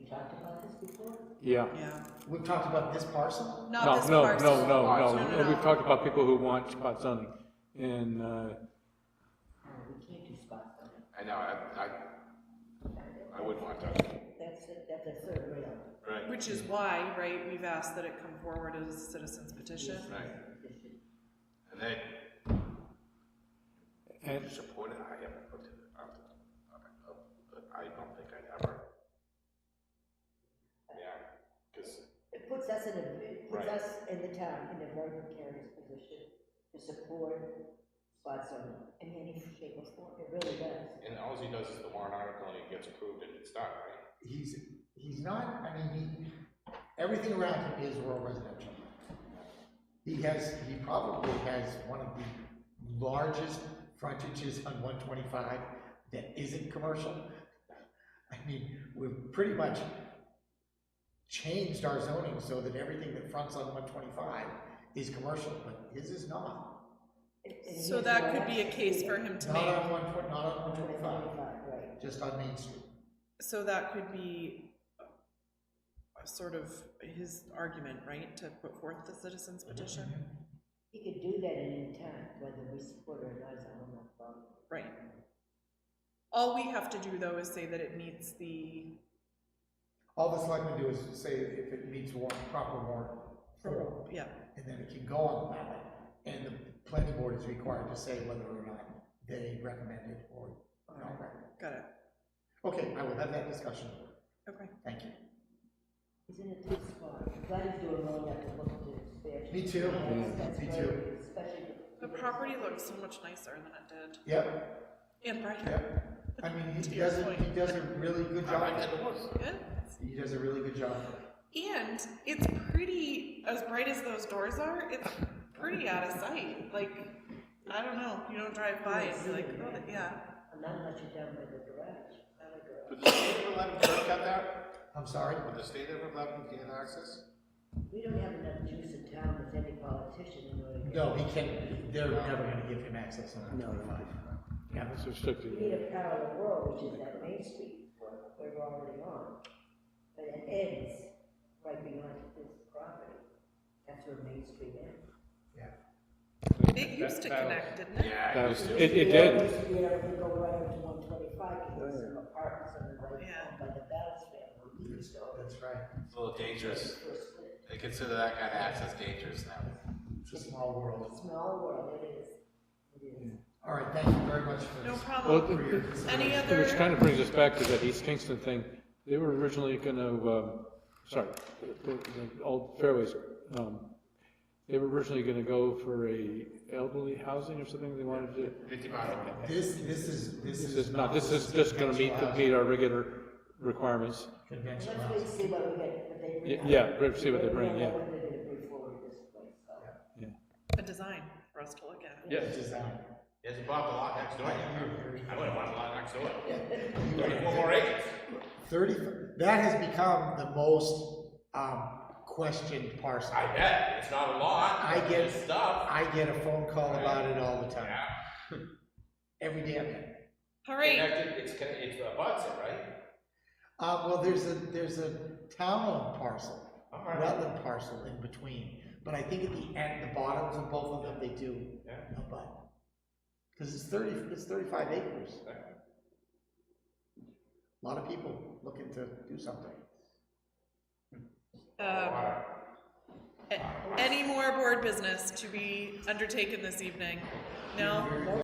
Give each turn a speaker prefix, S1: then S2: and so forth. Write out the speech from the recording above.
S1: Yeah.
S2: yeah.
S3: We've talked about this parcel?
S2: Not
S1: No,
S2: this
S1: no,
S2: parcel.
S1: no, no,
S2: No,
S1: no.
S2: no,
S1: We've
S2: no.
S1: talked about people who want spot zoning. And, uh,
S4: We can't do spot zoning.
S5: I know, I, I, I wouldn't want that,
S4: That's, a- that's a third rail.
S5: right?
S2: Which is why, right, we've asked that it come forward as a citizen's petition.
S5: Right. And then,
S1: and,
S5: support it, I haven't looked at it, up to- up- up, but I don't think I'd ever. Yeah, because,
S4: It puts us in a, it puts
S5: Right.
S4: us in the town in a very precarious position to support spot zoning in any shape or form. It really does.
S5: and all he does is the warrant article and it gets approved and it's done, right?
S3: He's, he's not, I mean, he, everything around him is rural residential. He has, he probably has one of the largest frontages on one twenty-five that isn't commercial. I mean, we've pretty much changed our zoning so that everything that fronts on one twenty-five is commercial, but his is not.
S4: And- and
S2: So
S4: here's
S2: that
S4: why
S2: could be a
S4: that's-
S2: case for him to
S3: Not
S2: make.
S3: on one twen- not on one twenty-five,
S4: Right.
S3: just on Main Street.
S2: So that could be a sort of his argument, right, to put forth the citizen's petition?
S4: He could do that at any time, whether we support or not, is a whole nother problem.
S2: Right. All we have to do, though, is say that it meets the,
S3: All the selectmen do is say if it meets warrant, proper warrant form,
S2: yeah,
S3: and then it can go on the ballot. And the planning board is required to say whether or not they recommend it or not.
S2: got it,
S3: Okay, I will have that discussion.
S2: okay.
S3: Thank you.
S4: Isn't it too small? Glad he's doing well enough to look into expansion.
S3: Me too.
S4: That's- that's
S3: Me
S4: great,
S3: too.
S4: Especially.
S2: The property looks so much nicer than it
S3: Yep,
S2: did, and brighter.
S3: yep. I mean, he does, a- he does a really good
S5: I
S3: job.
S5: like that it was.
S2: Good.
S3: He does a really good job.
S2: And it's pretty, as bright as those doors are, it's pretty out of sight, like, I don't know, you don't drive by and be like, oh, yeah.
S4: Not unless you're down by the garage, not a garage.
S5: Would the state ever let him curb cut that?
S3: I'm sorry?
S5: Would the state ever let him gain access?
S4: We don't have enough juice in town with any politician in order to. get-
S3: No, he can't, they're never gonna give him access on that twenty-five. Yeah,
S1: it's
S4: We
S1: restricted.
S4: need a parallel road, which is that Main Street road we're already on. But it ends right beyond this property. That's where Main Street ends.
S3: yeah.
S2: It used to
S1: That-
S2: connect, didn't it?
S5: Yeah,
S1: that
S5: it
S1: was-
S5: used to.
S1: It, it
S4: We
S1: did.
S4: used to be able to go right up to one twenty-five, because there's some apartments on the right,
S2: Yeah.
S4: by the Battles family. We used to always
S3: That's right.
S5: It's a little dangerous.
S4: first split.
S5: They consider that kind of access dangerous now.
S3: It's a small world.
S4: Small world, it is. It is.
S3: All right, thank you very much for
S2: No
S3: this.
S1: Well,
S2: problem.
S3: For your
S1: it- it-
S3: consideration.
S2: Any
S1: Which kind
S2: other,
S1: of brings us back to that East Kingston thing. They were originally gonna, um, sorry, the, the old fairways, um, they were originally gonna go for a elderly housing or something they wanted to.
S5: Fifty miles.
S3: This, this is, this
S1: This
S3: is.
S1: is not, this is just gonna meet, the- meet our regular requirements.
S3: Conventional
S4: Let's wait and
S3: housing.
S4: see what we get, what they bring.
S1: Y-
S4: out.
S1: yeah, we'll see what they
S4: We
S1: bring,
S4: don't
S1: yeah.
S4: know what they're gonna bring forward this place, so.
S2: a design for us to look at?
S3: It's just that.
S5: Yes, you bought the lot next door. I would have bought the lot next door. Thirty-four more acres.
S3: Thirty, that has become the most, um, questioned parcel.
S5: I bet, it's not a lot.
S3: I get-
S5: There's Stuff.
S3: I get a phone call about it all the time, every damn day.
S2: All right,
S5: Connected, it's, con- it's a butts, it, right?
S3: Uh, well, there's a, there's a town-owned parcel,
S5: All right.
S3: wetland parcel in between, but I think at the end, the bottoms of both of them, they do
S5: Yeah.
S3: a butt. Cause it's thirty, it's thirty-five acres. A Lot of people looking to do something.
S2: um,
S5: Water.
S2: a- any more board business to be undertaken this evening? No?